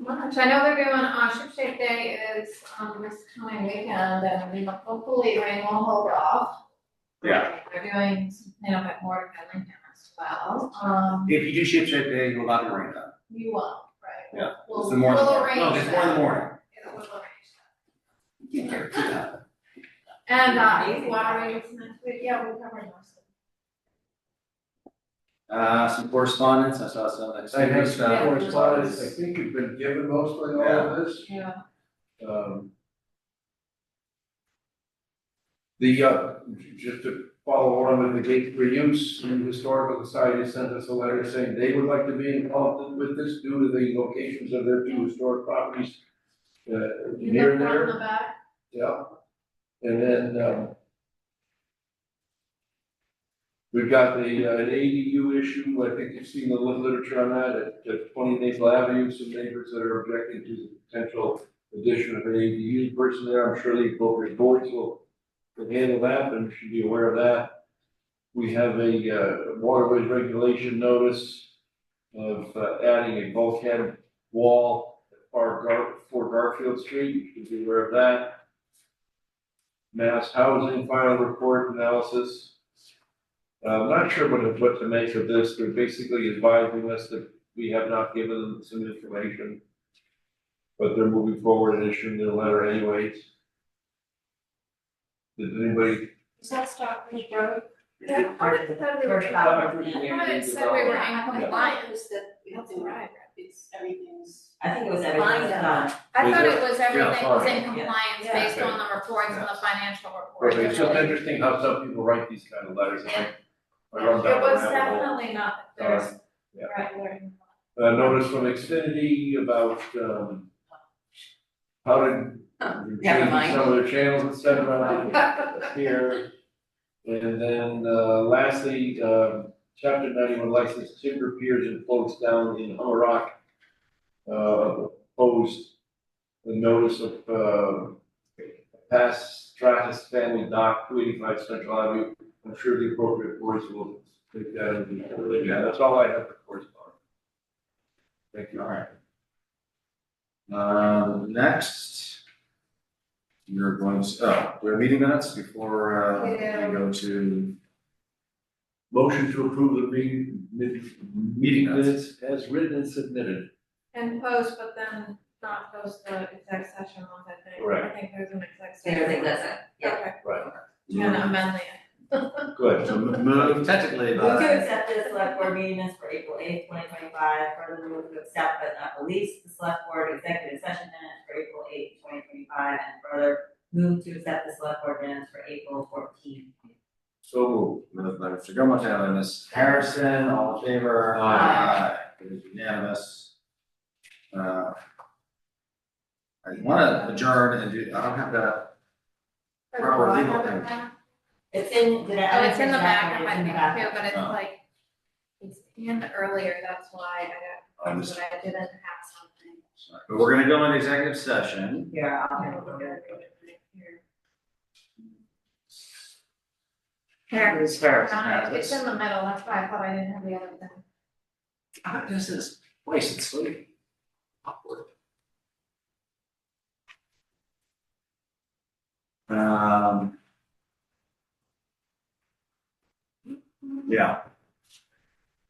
March, I know they're doing, uh, Ship Shape Day is, um, this coming weekend, and we hope- hopefully rain will hold off. Yeah. They're doing, some cleanup at Morgan and Lincoln as well, um, If you do ship shape day, you're allowed to rain on. you won't, right? Yeah, We'll- It's the morning. We'll arrange No, it's more in the that. morning. Yeah, we'll arrange that. You can't do that. And, uh, water rates next week, yeah, we'll cover most of Uh, some correspondence, I saw some I exciting have some stuff. correspondence, I think you've been given mostly all of this, it, yeah. um. The, uh, just to follow on with the gate for use, the historical society sent us a letter saying they would like to be involved with this due to the locations of their two historic properties. Uh, You near look there. front and the back, Yeah, and then, um. We've got the, uh, an ADU issue, I think you've seen the lit- literature on that, at, at twenty Maple Avenue, some neighbors that are objecting to the potential addition of an ADU person there, I'm sure the appropriate boards will. Can handle that, and should be aware of that. We have a, uh, waterways regulation notice of uh, adding a bulkhead wall at Far Gar, for Garfield Street, you should be aware of that. Mass Housing Final Report Analysis. Uh, I'm not sure what, to- what to make of this, they're basically advising us that we have not given them some information. But they're moving forward and issuing their letter anyways. Did anybody? Is that Stockbridge Road? yeah, how did it say we were, how did it say we were in compliance? that we have to arrive, it's, everything's. I think it was everything was done. I Yeah. thought it was everything was in Yeah. compliance Yeah. based on the reports and the financial reports. Perfect, it's just interesting how some people write these kind of letters, I think. I run down It was the rabbit hole. definitely not, that there's, Yeah. right, we're in Uh, notice from Xfinity about, um, how to Oh, Never change mind. some of the channels and stuff around here. And then, uh, lastly, um, chapter ninety-one license timber piers and floats down in Hummer Rock. Uh, opposed the notice of, uh, past Stratus family dock, two eighty-five Central Avenue. I'm sure the appropriate boards will take that and, yeah, that's all I have for correspondence. Thank you, all right. Um, next. You're going to, oh, we have meeting minutes before, uh, we Yeah. go to Motion to approve the meeting, mid- meeting minutes as written and submitted. And post, but then not post the exec session ones, I think. Right. I think there's an exec session. Everything was done. Yeah. Okay, Right. I'm gonna amend the, Good. So move technically, uh, Move but to accept the select board meeting minutes for April eighth, twenty twenty-five, further move to accept but not release the select board executive session minutes for April eighth, twenty twenty-five, and further move to accept the select board minutes for April fourteenth. So moved. moved by Mr. Gilmore, seconded by Ms. Harrison, all in favor? Aye. Aye. It is unanimous. Uh. I wanna adjourn and do, I don't have that, Proper I legal have it thing. now. It's in, did I? Oh, it's in the back I of didn't my check, thing but it's too, but it's Uh-huh. Oh. like, it's in earlier, that's why I on don't, this, but I didn't have something. but we're gonna go into executive session. in the back. Here, I'll Here, have a look at it. Here, Who's first? no, it's in the middle, that's why I thought I didn't have the other thing. How does this place and sleep? Awkward. Um. Yeah.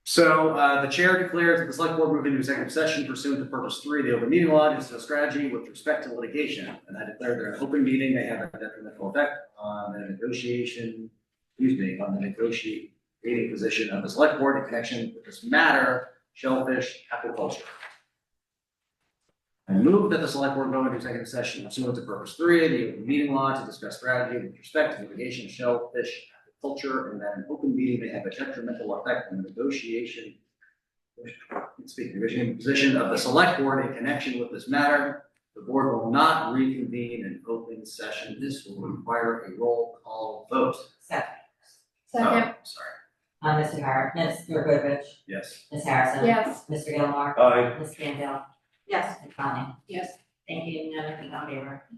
So, uh, the chair declares that the select board moved into executive session pursuant to purpose three, of the open meeting law, to discuss strategy with respect to litigation. And I declare that an open meeting may have a detrimental effect on the negotiation, excuse me, on the negotiate, meeting position of the select board in connection with this matter, shellfish aquaculture. I move that the select board go into executive session pursuant to purpose three, of the open meeting law to discuss strategy with respect to litigation of shellfish aquaculture, and that an open meeting may have a detrimental effect on the negotiation speaking of negotiating position of the select board in connection with this matter. The board will not reconvene in open session. This will require a roll call vote. Second, Second, Oh, Sorry, uh, Mr. Har, Mr. Goodrich, yes. Ms. Harrison. yes. Mr. Gilmore, Aye. Ms. Campbell, Yes. Ms. Conley. Yes. Thank you, and everything on favor.